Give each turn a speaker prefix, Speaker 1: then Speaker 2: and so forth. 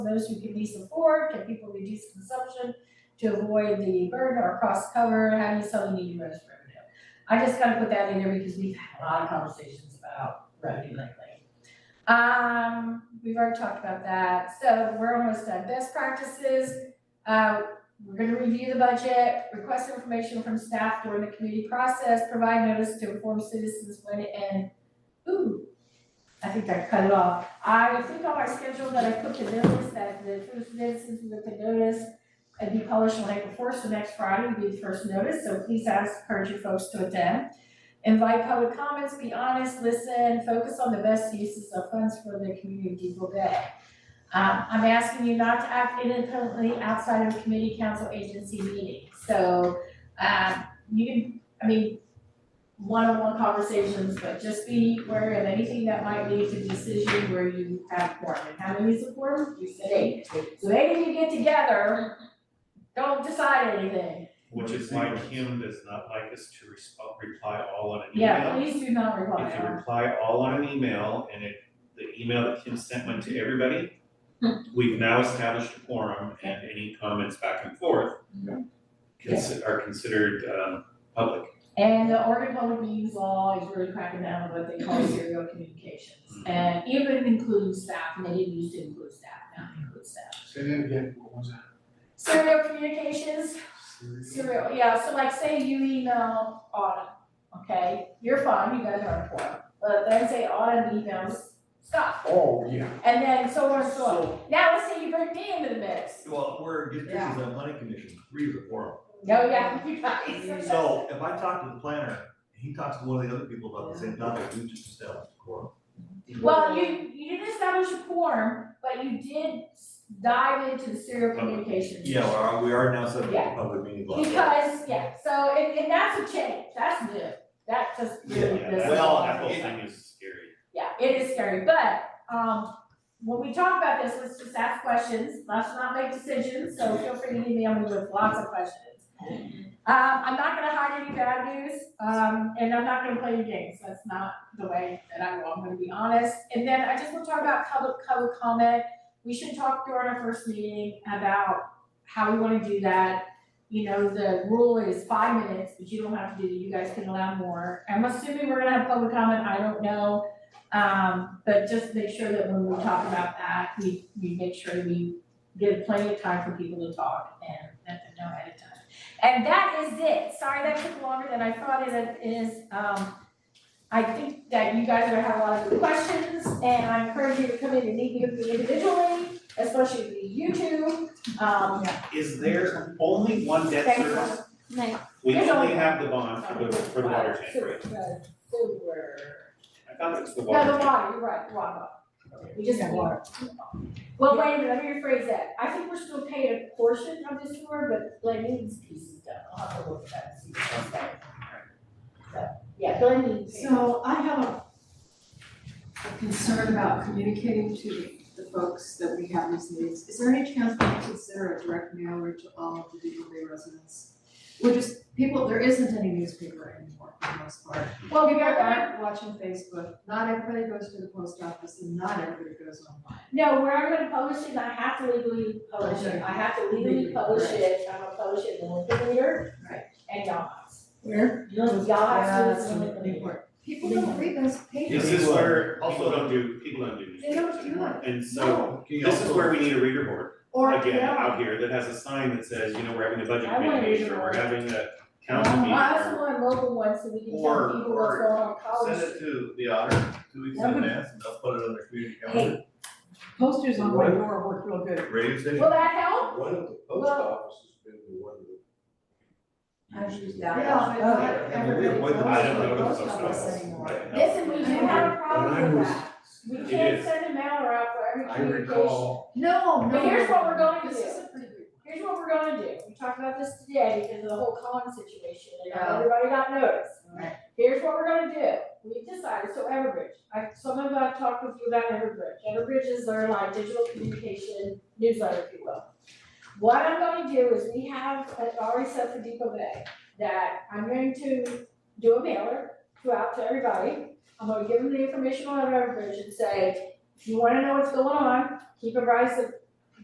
Speaker 1: those who can least afford, can people reduce consumption to avoid the burden or cost cover, how do you sell the needy gross revenue? I just gotta put that in there because we've had a lot of conversations about revenue lately. Um, we've already talked about that, so we're almost done, best practices, uh, we're gonna review the budget, request information from staff during the committee process, provide notice to inform citizens when and, ooh, I think I cut it off. I think on my schedule that I put the notice that the first citizens would put the notice and be published on April first, so next Friday would be the first notice, so please ask, encourage your folks to attend. Invite public comments, be honest, listen, focus on the best uses of funds for the community of Depot Bay. Um, I'm asking you not to act independently outside of committee council agency meeting, so, um, you can, I mean, one-on-one conversations, but just be aware of anything that might lead to decision where you have quorum, and how many is a quorum? You said eight, so eight of you get together, don't decide anything,
Speaker 2: Which is why Kim does not like us to respond, reply all on an email.
Speaker 1: yeah, please do not reply.
Speaker 2: If you reply all on an email and it, the email that Kim sent went to everybody,
Speaker 1: Hmm.
Speaker 2: we've now established a quorum and any comments back and forth consi- are considered, um, public.
Speaker 1: And the Oregon Public Meetings Law is really cracking down on what they call serial communications. And even including staff, and they didn't used to include staff, now they include staff.
Speaker 3: Say that again, what was
Speaker 1: Serial communications,
Speaker 3: that?
Speaker 1: serial, yeah, so like say you email Autumn, okay? You're fine, you guys are important, but then say Autumn emails Scott,
Speaker 3: Oh, yeah.
Speaker 1: and then so on and so on. Now let's say you bring me into the mix.
Speaker 4: Well, we're good, this is a planning commission, three is a forum.
Speaker 1: No, Oh, yeah, you guys.
Speaker 4: So if I talk to the planner, he talks to one of the other people about the same topic, we just established a quorum.
Speaker 1: Well, you, you didn't establish a quorum, but you did s- dive into the serial communications.
Speaker 4: Yeah, we are, we are now subject
Speaker 1: Yeah.
Speaker 4: to public meeting law.
Speaker 1: Because, yeah, so, and, and that's a change, that's new, that just really,
Speaker 2: Yeah,
Speaker 1: this
Speaker 2: that
Speaker 1: is.
Speaker 4: well,
Speaker 2: whole- that whole
Speaker 4: it-
Speaker 2: thing is scary.
Speaker 1: Yeah, it is scary, but, um, when we talk about this, let's just ask questions, let's not make decisions, so feel free to email me with lots of questions. Um, I'm not gonna hide any bad news, um, and I'm not gonna play your games, that's not the way that I will, I'm gonna be honest. And then I just wanna talk about public public comment, we should talk during our first meeting about how we wanna do that. You know, the rule is five minutes, but you don't have to do that, you guys can allow more. I'm assuming we're gonna have public comment, I don't know. Um, but just make sure that when we talk about that, we, we make sure we give plenty of time for people to talk and let them know ahead of time. And that is it. Sorry that took longer than I thought it is. Um, I think that you guys are gonna have a lot of good questions and I encourage you to come in and meet with me individually, especially you two. Um,
Speaker 2: Is there only one debt
Speaker 1: Thank you.
Speaker 2: service?
Speaker 5: No.
Speaker 2: We
Speaker 1: There's
Speaker 2: only
Speaker 1: only-
Speaker 2: have the bond for the, for the water tank, right?
Speaker 1: Sewer, sewer.
Speaker 2: I thought it was the water
Speaker 1: No, the
Speaker 2: tank.
Speaker 1: water, you're right, the water. We just have water. Well, wait a minute, let me rephrase that. I think we're still paying a portion of this sewer, but Glen Eames piece is done. I'll have to look at that and see what's that. So, yeah, Glen Eames.
Speaker 6: So I have a a concern about communicating to the folks that we have these meetings. Is there any chance we can consider a direct mailer to all of the Depot Bay residents? We're just, people, there isn't any newspaper anymore for the most part.
Speaker 1: Well, we
Speaker 6: People
Speaker 1: are, uh,
Speaker 6: aren't watching Facebook, not everybody goes to the post office and not everybody goes online.
Speaker 1: no, where I'm gonna publish it, I have to legally publish it. I have to legally
Speaker 6: Legally,
Speaker 1: publish
Speaker 6: right.
Speaker 1: it. I'm gonna publish it in the Lincoln Leader.
Speaker 6: Right.
Speaker 1: And Yahoo's.
Speaker 6: Where?
Speaker 1: Yahoo's
Speaker 6: Yeah,
Speaker 1: is
Speaker 6: that's
Speaker 1: in the
Speaker 6: really
Speaker 1: Lincoln Leader.
Speaker 6: important. People don't read those
Speaker 2: Is
Speaker 6: papers.
Speaker 2: this where people
Speaker 4: Also-
Speaker 2: don't do, people don't do news?
Speaker 6: They don't do it.
Speaker 2: And so, this is where we need a reader board.
Speaker 6: Or,
Speaker 2: again,
Speaker 6: yeah.
Speaker 2: out here that has a sign that says, you know, we're having a budget
Speaker 1: I wanna
Speaker 2: committee
Speaker 1: read
Speaker 2: meeting
Speaker 1: it
Speaker 2: or
Speaker 1: all.
Speaker 2: we're having a council
Speaker 1: Um,
Speaker 2: meeting.
Speaker 1: I also
Speaker 2: or-
Speaker 1: want a mobile one so we can tell
Speaker 4: Or-
Speaker 1: people what's
Speaker 4: or
Speaker 1: going on in College
Speaker 4: Send it
Speaker 1: Street.
Speaker 4: to the auditor two weeks in advance and they'll put it on their community calendar,
Speaker 7: Posters on my door work real good.
Speaker 4: radio station.
Speaker 1: Will that help?
Speaker 3: One of the
Speaker 1: Well-
Speaker 3: post offices been the one that. usually-
Speaker 6: Yeah, but not
Speaker 4: I mean, we
Speaker 6: everybody goes
Speaker 4: avoid
Speaker 6: to
Speaker 4: the-
Speaker 6: the
Speaker 2: I don't know the
Speaker 6: post
Speaker 2: post
Speaker 6: office
Speaker 2: office
Speaker 6: anymore.
Speaker 2: right now.
Speaker 1: Listen, we do have a problem with that. We
Speaker 2: It
Speaker 1: can't
Speaker 2: is.
Speaker 1: send a mailer out for every
Speaker 3: I
Speaker 1: communication.
Speaker 3: recall,
Speaker 6: No, no.
Speaker 1: But here's what we're gonna
Speaker 6: This
Speaker 1: do.
Speaker 6: is a pretty good
Speaker 1: Here's what we're gonna do, we talked about this today because of the whole Collins situation, and
Speaker 6: Yeah.
Speaker 1: how everybody got noticed.
Speaker 6: Right.
Speaker 1: Here's what we're gonna do, we've decided, so Everbridge, I, some of you I've talked with you about Everbridge, Everbridge is their like digital communication newsletter, if you will. What I'm gonna do is, we have, I've already said for Depot Bay, that I'm going to do a mailer to out to everybody. I'm gonna give them the information on Everbridge and say, if you wanna know what's going on, keep advised of